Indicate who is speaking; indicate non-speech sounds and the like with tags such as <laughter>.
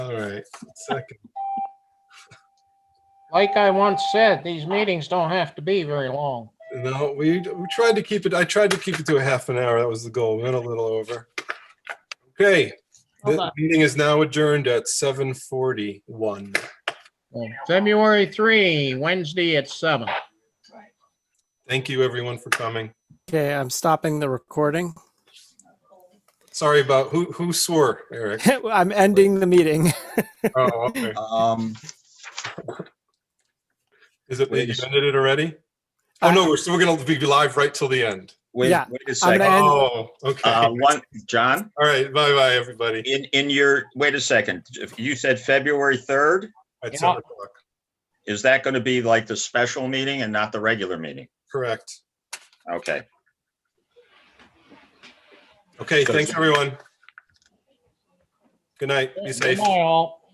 Speaker 1: right, second.
Speaker 2: Like I once said, these meetings don't have to be very long.
Speaker 1: No, we, we tried to keep it, I tried to keep it to a half an hour. That was the goal. We went a little over. Okay,
Speaker 3: Hold
Speaker 1: the
Speaker 3: on.
Speaker 1: meeting is now adjourned at 7:41.
Speaker 2: February 3, Wednesday at 7.
Speaker 1: Thank you, everyone, for coming.
Speaker 4: Okay, I'm stopping the recording. <laughs>
Speaker 1: Sorry about, who, who swore, Eric?
Speaker 4: I'm ending the meeting.
Speaker 1: Oh, okay.
Speaker 5: Um,
Speaker 1: Is it,
Speaker 5: Wait.
Speaker 1: you ended it already? Oh, no, we're still going to be live right till the end.
Speaker 5: wait,
Speaker 4: Yeah,
Speaker 5: wait a
Speaker 4: I'm gonna
Speaker 5: second.
Speaker 4: end-
Speaker 1: Oh, okay.
Speaker 5: Uh,
Speaker 1: All
Speaker 5: one, John,
Speaker 1: right, bye-bye, everybody.
Speaker 5: in, in your, wait a second. If You said February 3rd.
Speaker 1: At
Speaker 2: Yeah.
Speaker 1: 7 o'clock,
Speaker 5: Is that going to be like the special meeting and not the regular meeting?
Speaker 1: correct.
Speaker 5: Okay.
Speaker 1: Okay,
Speaker 5: Good.
Speaker 1: thanks, everyone. Good night. Be safe.
Speaker 2: Good night, all.